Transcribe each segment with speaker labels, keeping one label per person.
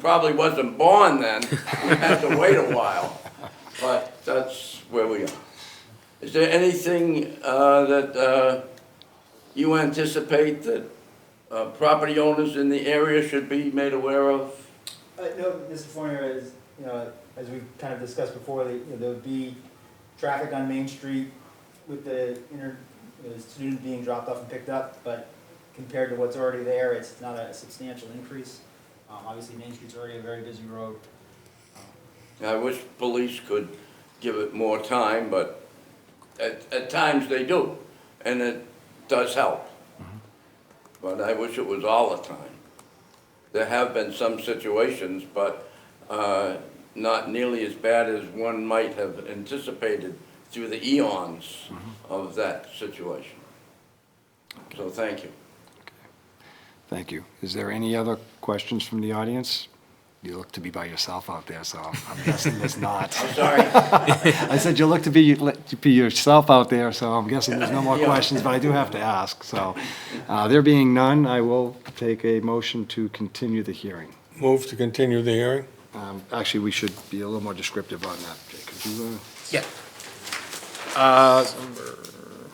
Speaker 1: probably wasn't born then, we had to wait a while, but that's where we are. Is there anything uh, that uh, you anticipate that uh, property owners in the area should be made aware of?
Speaker 2: Uh, no, Mr. Fournier, as, you know, as we've kind of discussed before, that, you know, there'll be traffic on Main Street with the inter, the student being dropped off and picked up, but compared to what's already there, it's not a substantial increase. Um, obviously, Main Street's already a very busy road.
Speaker 1: I wish police could give it more time, but at, at times they do, and it does help. But I wish it was all the time. There have been some situations, but, uh, not nearly as bad as one might have anticipated through the eons of that situation. So thank you.
Speaker 3: Thank you. Is there any other questions from the audience? You look to be by yourself out there, so I'm guessing there's not.
Speaker 1: I'm sorry.
Speaker 3: I said you look to be, to be yourself out there, so I'm guessing there's no more
Speaker 1: Yeah.
Speaker 3: questions, but I do have to ask, so. uh, There being none, I will take a motion to continue the hearing.
Speaker 4: Move to continue the hearing?
Speaker 3: Um, Actually, we should be a little more descriptive on that, Jake. Could you, uh,
Speaker 5: Yeah. Uh,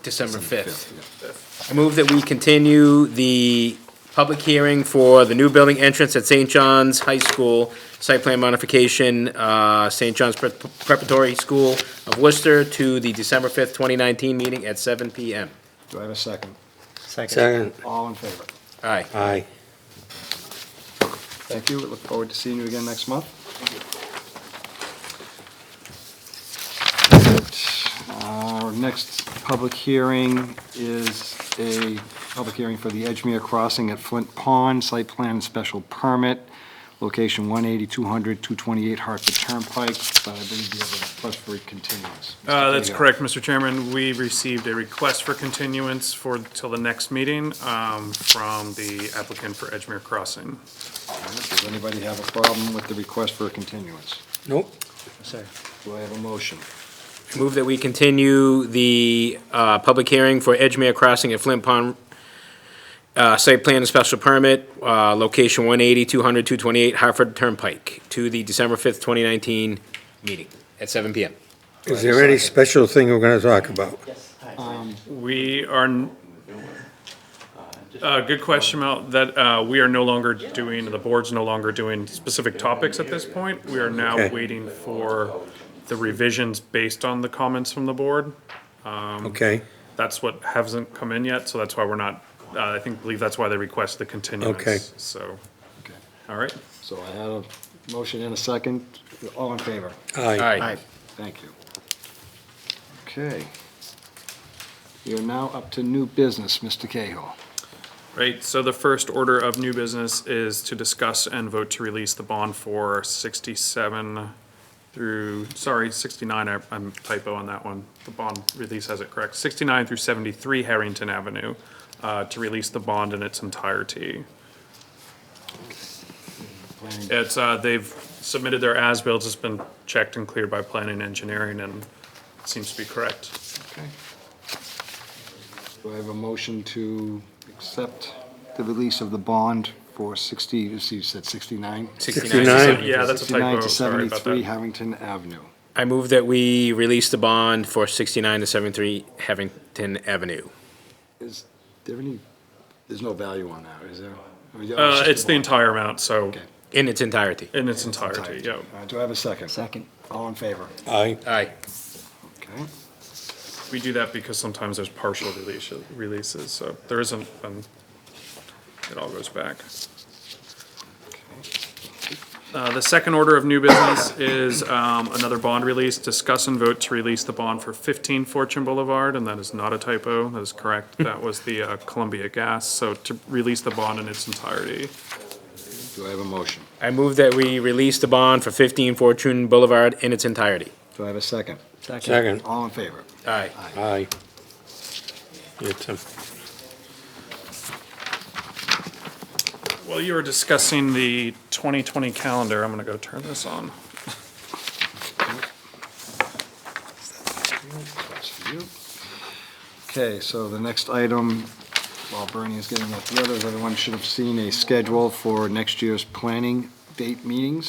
Speaker 5: December 5th. I move that we continue the public hearing for the new building entrance at St. John's High School, site plan modification, uh, St. John's Prep- Preparatory School of Worcester to the December 5th, 2019 meeting at seven PM.
Speaker 3: do I have a second?
Speaker 4: Second.
Speaker 3: All in favor?
Speaker 5: Aye.
Speaker 4: Aye.
Speaker 3: Thank you. We Look forward to seeing you again next month. Our next public hearing is a public hearing for the Edgemere Crossing at Flint Pond, site plan and special permit, location 180, 200, 228 Hartford Turnpike, but I believe you have a request for a continuance. Mr.
Speaker 6: Uh, That's
Speaker 3: Cahill.
Speaker 6: correct, Mr. Chairman. We received a request for continuance for, till the next meeting um, from the applicant for Edgemere Crossing.
Speaker 3: Does anybody have a problem with the request for a continuance?
Speaker 4: Nope.
Speaker 3: Do I have a motion?
Speaker 5: Move that we continue the uh, public hearing for Edgemere Crossing at Flint Pond, uh, site plan and special permit, uh, location 180, 200, 228 Hartford Turnpike, to the December 5th, 2019 meeting at 7 PM.
Speaker 4: Is there any special thing we're gonna talk about?
Speaker 2: Yes.
Speaker 6: We are, n- uh, good question, Mel, that uh, we are no longer doing, the board's no longer doing specific topics at this point. We are now
Speaker 4: Okay.
Speaker 6: waiting for the revisions based on the comments from the board.
Speaker 4: Okay,
Speaker 6: That's what hasn't come in yet, so that's why we're not, uh, I think, believe that's why they request the continuance.
Speaker 4: Okay.
Speaker 6: So,
Speaker 3: Okay.
Speaker 6: all right.
Speaker 3: So I had a motion and a second. All in favor?
Speaker 4: aye.
Speaker 5: Aye.
Speaker 3: Thank you. Okay. You're now up to new business, Mr. Cahill.
Speaker 6: Right, so the first order of new business is to discuss and vote to release the bond for sixty-seven through, sorry, sixty-nine, I- I'm typo on that one. The bond release has it correct, sixty-nine through seventy-three Harrington Avenue, uh, to release the bond in its entirety. It's, uh, they've submitted their as-bills, it's been checked and cleared by planning and engineering and seems to be correct.
Speaker 3: Okay. Do I have a motion to accept the release of the bond for 60, you said 69?
Speaker 4: 69.
Speaker 6: Yeah, that's a
Speaker 3: 69
Speaker 6: typo,
Speaker 3: to
Speaker 6: sorry about
Speaker 3: 73
Speaker 6: that.
Speaker 3: Harrington Avenue.
Speaker 5: I move that we release the bond for 69 to 73 Havington Avenue.
Speaker 3: Is there any, there's no value on that, is there? I mean,
Speaker 6: Uh,
Speaker 3: just
Speaker 6: it's the
Speaker 3: bond.
Speaker 6: entire amount, so
Speaker 3: Okay.
Speaker 5: In its entirety.
Speaker 6: In its entirety, yeah.
Speaker 3: Uh, Do I have a second? Second. All in favor?
Speaker 4: Aye.
Speaker 5: Aye.
Speaker 3: Okay.
Speaker 6: We do that because sometimes there's partial release, releases, so there isn't, um, it all goes back. Uh, the second order of new business is, um, another bond release, discuss and vote to release the bond for fifteen Fortune Boulevard, and that is not a typo, that is correct. That was the uh, Columbia Gas, so to release the bond in its entirety.
Speaker 3: Do I have a motion?
Speaker 5: I move that we release the bond for 15 Fortune Boulevard in its entirety.
Speaker 3: Do I have a second?
Speaker 4: Second.
Speaker 3: All in favor?
Speaker 5: Aye.
Speaker 4: Aye. It's a-
Speaker 6: While you were discussing the twenty twenty calendar, I'm gonna go turn this on.
Speaker 3: That's for you. Okay, so the next item, while Bernie is getting that together, everyone should have seen a schedule for next year's planning date meetings.